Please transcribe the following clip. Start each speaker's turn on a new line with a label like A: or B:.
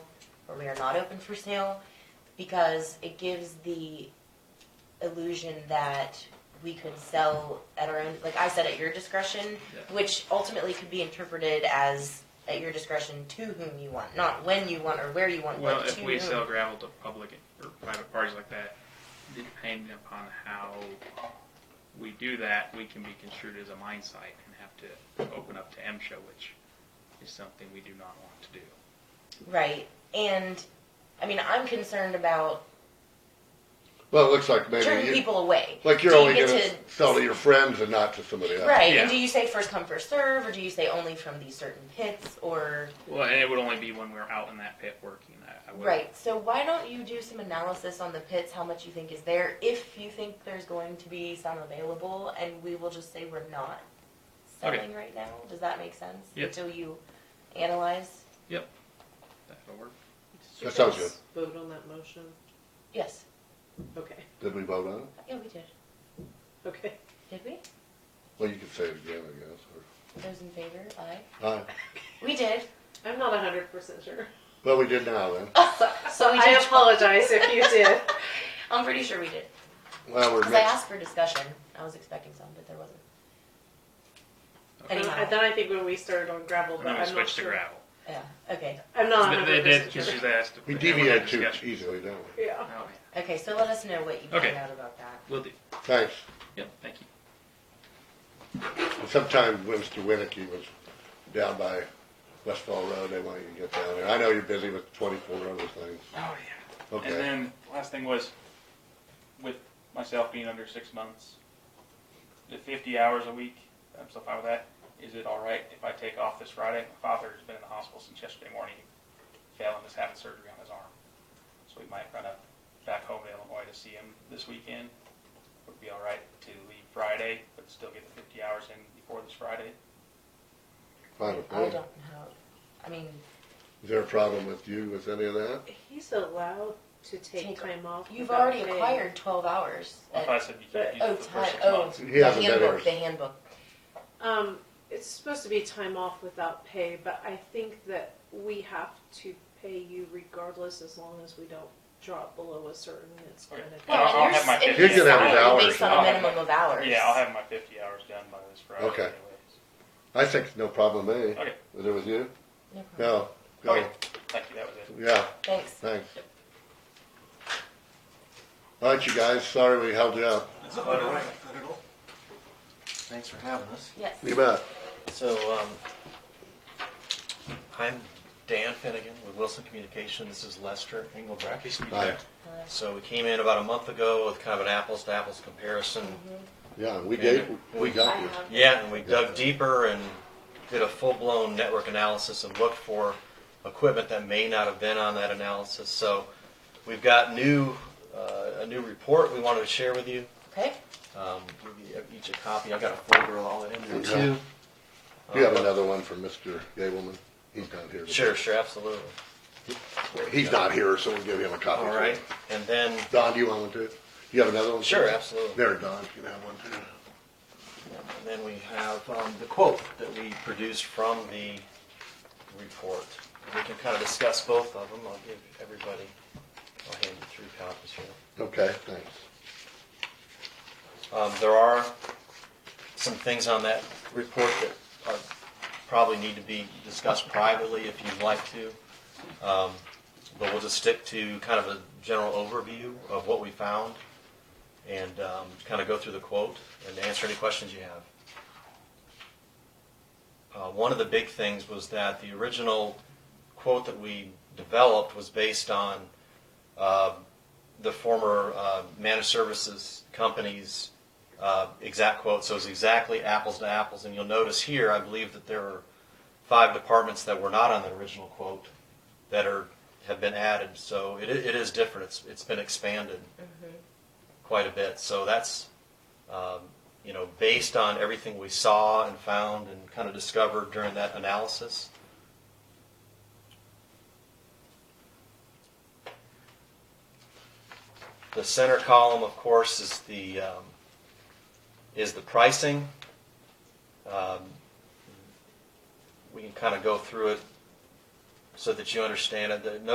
A: where we are not open for sale because it gives the illusion that we could sell at our own, like I said, at your discretion,
B: Yeah.
A: which ultimately could be interpreted as at your discretion to whom you want, not when you want or where you want,
C: Well,
A: but
C: if
A: to
C: we
A: whom.
C: sell gravel to public or private parties like that, depending upon how we do that, we can be construed as a mine site and have to open up to MSHA, which is something we do not want to do.
A: Right. And I mean, I'm concerned about
D: Well, it looks like maybe
A: turning
D: you,
A: people away.
D: like you're
A: Do you
D: only
A: get
D: gonna
A: to-
D: sell to your friends and not to somebody else.
A: Right.
C: Yeah.
A: And do you say first come, first serve, or do you say only from these certain pits, or
C: Well, and it would only be when we're out in that pit working. I, I would.
A: right? So why don't you do some analysis on the pits, how much you think is there, if you think there's going to be some available, and we will just say we're not
C: Okay.
A: selling right now. Does that make sense?
C: Yep.
A: Until you analyze.
C: That'll work.
D: That sounds good.
E: Vote on that motion.
A: Yes.
E: Okay,
D: Did we vote on it?
A: Yeah, we did.
E: okay.
A: Did we?
D: Well, you could say it again, I guess.
A: Those in favor, aye.
D: Or, aye.
A: We did.
E: I'm not hundred percent sure.
D: Well, we did now then.
E: So,
A: so we
E: I
A: did-
E: apologize if you did.
A: I'm pretty sure we did.
D: Well, we're
A: Because I
D: mixed.
A: asked for discussion. I was expecting some, but there wasn't.
C: Okay.
E: And
A: Anyhow,
E: Uh, then I think when we started on gravel,
C: And
E: but
C: then we
E: I'm not
C: switch to
E: sure.
C: gravel.
A: yeah, okay.
E: I'm
C: But
E: not
C: They
E: hundred
C: did,
E: percent
C: because she's
E: sure.
C: asked. if
D: We
C: they wanted
D: deviate too
C: discussion.
D: easily, don't we?
E: Yeah.
C: Oh, yeah.
A: Okay, so let us know what you
C: Okay.
A: find out about that.
C: Will do.
D: Thanks.
C: Yep, thank you.
D: Sometimes Winston Winnicky was down by Westfall Road, they want you to get down there. I know you're busy with twenty-four other things.
C: Oh, yeah. And
D: Okay.
C: then last thing was, with myself being under six months, the 50 hours a week, I'm still fine with that. Is it all right if I take off this Friday? My father's been in the hospital since yesterday morning. He fell and is having surgery on his arm. So we might run up back home to Illinois to see him this weekend. Would it be all right to leave Friday, but still get the 50 hours in before this Friday?
D: Fine with
A: I
D: me.
A: don't know. I mean,
D: Is there a problem with you with any of that?
E: He's allowed to
A: Take-
E: take time off.
A: you've
E: without
A: already
E: pay.
A: acquired 12 hours.
C: Well, if I said you can't use
A: oh,
C: it for the
A: time.
C: first six
A: Oh,
C: months.
D: He
A: the
D: hasn't been
A: handbook.
D: here.
A: The handbook.
E: Um, it's supposed to be time off without pay, but I think that we have to pay you regardless as long as we don't drop below a certain, it's
C: Okay.
E: gonna.
C: Well, I'll-
A: and
C: I'll
A: you're
C: have my
A: s- and
C: 50
A: you're
D: You can have his
A: signing
D: hours
A: Based on
C: now.
A: a minimum of hours.
C: Yeah, I'll have my 50 hours done by this Friday.
D: Okay.
C: Anyways.
D: I think it's no problem with me.
C: Okay.
D: Is it with you?
A: No problem.
D: No. Go.
C: Okay. Thank you, that was it.
D: Yeah,
A: Thanks.
D: thanks. All right, you guys, sorry we held you up.
F: That's quite all right, not at all. Thanks for having us.
A: Yes.
D: You bet.
F: So, um, I'm Dan Finnegan with Wilson Communications. This is Lester Engelbrecht.
D: Hi.
A: Hello.
F: So we came in about a month ago with kind of an apples to apples comparison.
D: Yeah, we gave, we got you.
F: Yeah, and we dug deeper and did a full blown network analysis and looked for equipment that may not have been on that analysis. So we've got new uh, a new report we wanted to share with you.
A: Okay.
F: Um, give you each a copy. I've got a folder with all that in there too.
D: You
F: uh,
D: have another one from Mr. Gableman? He's not here.
F: Sure, sure, absolutely.
D: He's not here, so we'll give him a copy.
F: All right, and then,
D: Don, do you want one too? You have another one?
F: sure, absolutely.
D: There, Don, you can have one too.
F: And then we have um, the quote that we produced from the report. We can kind of discuss both of them. I'll give everybody, I'll hand you three copies here.
D: Okay, thanks.
F: Um, there are some things on that report that are, probably need to be discussed privately if you'd like to. Um, but we'll just stick to kind of a general overview of what we found and, um, kind of go through the quote and answer any questions you have. Uh, one of the big things was that the original quote that we developed was based on, uh, the former uh, managed services company's uh, exact quote, so it's exactly apples to apples. And you'll notice here, I believe that there are five departments that were not on the original quote that are have been added. So it, i- it is different. It's it's been expanded quite a bit. So that's um, you know based on everything we saw and found and kind of discovered during that analysis. The center column, of course, is the, um, is the pricing. Um, We can kind of go through it so that you understand it. The- no